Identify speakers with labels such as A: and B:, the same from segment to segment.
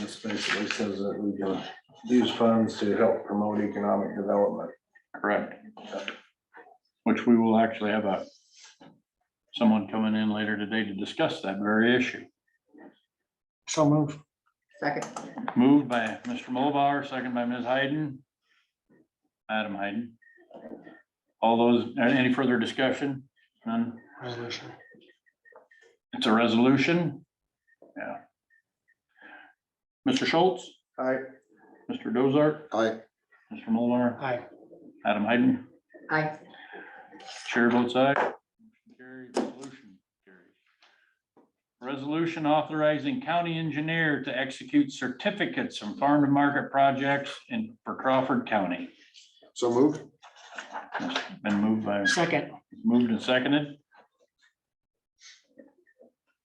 A: This basically says that we can use funds to help promote economic development.
B: Correct. Which we will actually have a, someone coming in later today to discuss that very issue.
C: So move.
D: Second.
B: Moved by Mr. Mulbauer, second by Ms. Hayden. Adam Hayden. All those, any further discussion? None.
C: Resolution.
B: It's a resolution. Yeah. Mr. Schultz,
A: Aye.
B: Mr. Dozart,
A: Aye.
B: Mr. Mulbauer,
C: Aye.
B: Adam Hayden.
D: Aye.
B: Chair votes aye. Motion carried. Resolution carries. Resolution authorizing county engineer to execute certificates from farm to market projects in, for Crawford County.
A: So moved.
B: Been moved by,
C: Second.
B: moved and seconded.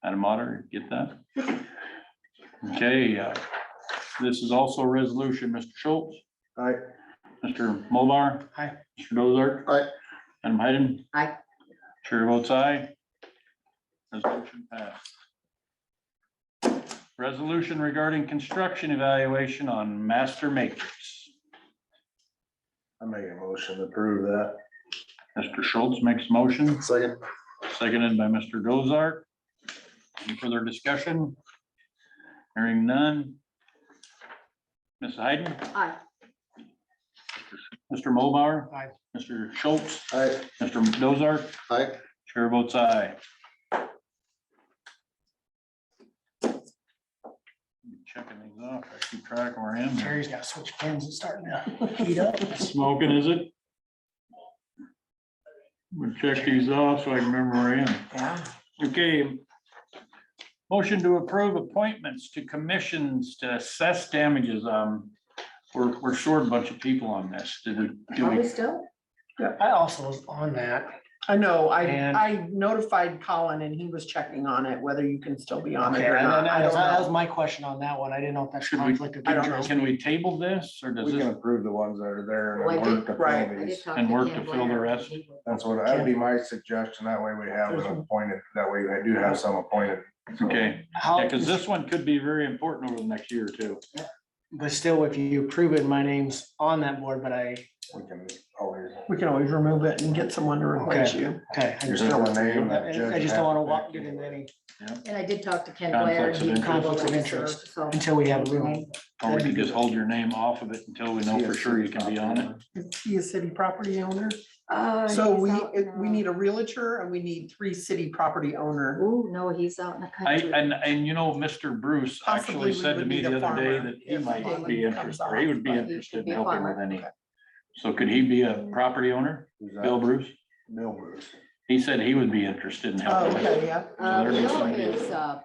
B: Adam Otter, get that? Okay, uh, this is also a resolution, Mr. Schultz,
A: Aye.
B: Mr. Mulbar.
C: Aye.
B: Mr. Dozart.
A: Aye.
B: Adam Hayden.
D: Aye.
B: Chair votes aye. Resolution passed. Resolution regarding construction evaluation on master matrix.
A: I make a motion to approve that.
B: Mr. Schultz makes motion,
A: Second.
B: seconded by Mr. Dozart. Any further discussion? Hearing none. Ms. Hayden,
D: Aye.
B: Mr. Mulbauer.
C: Aye.
B: Mr. Schultz,
A: Aye.
B: Mr. Dozart.
A: Aye.
B: Chair votes aye. Checking these off, I keep track of where I am.
C: Terry's got to switch pins. It's starting to heat up.
B: Smoking, is it? We'll check these off so I can remember where I am.
C: Yeah.
B: Okay. Motion to approve appointments to commissions to assess damages. Um, we're, we're short a bunch of people on this. Did we, do
D: Are we
B: we?
D: still?
C: I also was on that.
E: I know, I,
C: And-
E: I notified Colin and he was checking on it, whether you can still be on it
C: Okay,
E: or
C: and then
E: not. I
C: that
E: don't
C: that was
E: know.
C: my question on that one. I didn't know if that's
B: Should we,
C: conflict of interest.
B: can we table this or does
A: We can
B: this,
A: approve the ones that are there and
D: Like
A: then work
D: it,
A: to
E: right.
A: fill
D: Oh, I did
A: these.
D: talk
B: And work
D: Ken
B: to fill the
D: Blair.
B: rest?
A: That's what, that'd be my suggestion. That way we have them appointed, that way we do have some appointed. So,
B: okay?
C: How-
B: Yeah, because this one could be very important over the next year or two.
C: But still, if you approve it, my name's on that board, but I,
A: We can always,
E: We can always remove it and get someone to replace you.
C: okay. I
A: there's
C: just
A: still
C: don't
A: a name. that
C: I- I
A: judge
C: just don't want to
A: has
C: walk,
A: pick.
C: get into any,
D: And I did talk to Ken Blair.
B: Conflicts
D: and
B: of
D: he
B: interest.
D: told
C: Conflicts of
D: us,
C: interest.
D: so-
C: until we have room.
B: Or we can just hold your name off of it until we know for sure you can be on it.
E: Is he a city property owner?
D: Uh,
E: So
D: he's
E: we,
D: out in
E: it- we
D: the-
E: need a realtor and we need three city property owner.
D: Ooh, no, he's out in the
B: I,
D: country.
B: and, and you know, Mr. Bruce
E: Possibly
B: actually
E: we
B: said to
E: would
B: me
E: need
B: the
E: a
B: other day
E: farmer
B: that he
E: if
B: might
E: Portland
B: be
E: comes
B: interested, or he would be
E: off, but
D: he
B: interested
D: should be
B: in
D: a
B: helping with
D: farmer.
B: any. So could he be a property owner,
A: Who's that?
B: Bill Bruce?
A: Bill Bruce.
B: He said he would be interested in
E: Oh,
B: helping. with
E: okay,
B: it.
E: yeah.
D: Uh,
B: there is
D: Bill
B: somebody-
D: is, uh,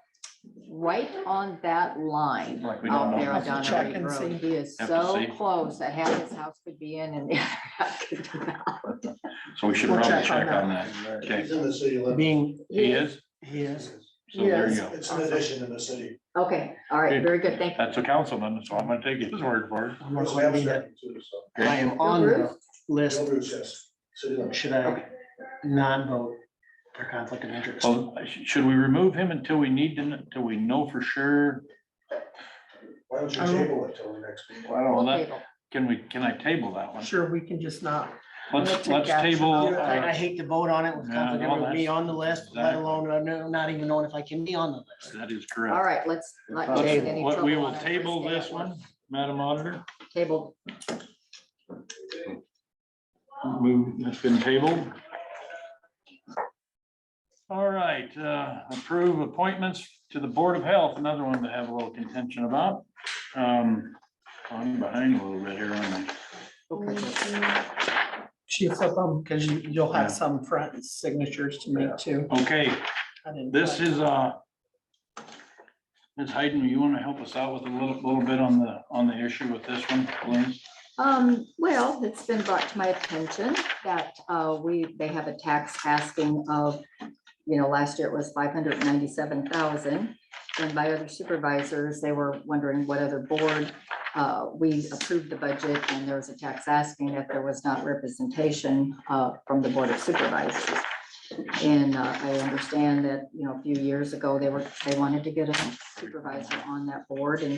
D: right on that line
A: Like,
B: We don't
D: out there
B: know.
D: on Donna
E: Check
D: Reed
E: and
D: Road.
E: see.
D: He is
B: Have to
D: so
B: see.
D: close that half his house could be in and the other half could be out.
B: So we should
E: We'll
B: probably
E: check on
B: check on that.
A: Right.
B: Okay,
F: in the city limits.
C: Being,
B: he is,
C: he is.
B: so there you
E: Yes.
B: go.
F: It's an addition in the city.
D: Okay, all right,
B: Good.
D: very good, thank you.
B: That's a councilman, so I'm gonna take his word for it.
C: I'm
F: We
C: not
F: have a
C: saying that
F: second too, so.
C: I am on the list.
F: No roots, yes. City limits.
C: Should I not vote for conflict of interest?
B: Well, sh- should we remove him until we need to, kn- until we know for sure?
D: Oh.
F: Why don't you table it till the next meeting?
A: Well, I don't,
B: Well,
D: We'll
B: that-
D: table.
B: Can we, can I table that one?
E: Sure, we can just not.
B: Let's,
E: We'll
B: let's
E: take action
B: table.
E: on it.
C: I I
B: uh,
C: hate to vote on it with
B: Yeah,
C: conflict,
B: no,
C: of interest, me
B: that's-
C: on the list, let
B: exactly.
C: alone, I know- not even knowing if I can be on the list.
B: That is
D: All
B: correct.
D: right, let's not
A: Let's-
D: get
B: Let's-
D: into any
B: what- We
D: trouble
B: will
D: on our
B: table
D: first day
B: this
D: at work.
B: one, Madam Auditor.
D: Table,
B: Move, it's been tabled. All right, uh, approve appointments to the Board of Health, another one to have a little contention about. Um, I'm behind a little bit here, aren't I?
E: She flip them because you, you'll
B: Yeah.
E: have some front signatures to make too.
B: Okay,
E: I didn't
B: This
E: like-
B: is, uh, Ms. Hayden, you want to help us out with a little, little bit on the, on the issue with this one, please?
D: um, well, it's been brought to my attention that, uh, we, they have a tax asking of, you know, last year it was five hundred ninety-seven thousand. And by other supervisors, they were wondering what other board, uh, we approved the budget and there was a tax asking that there was not representation, uh, from the Board of Supervisors. And uh, I understand that, you know, a few years ago, they were, they wanted to get a supervisor on that board and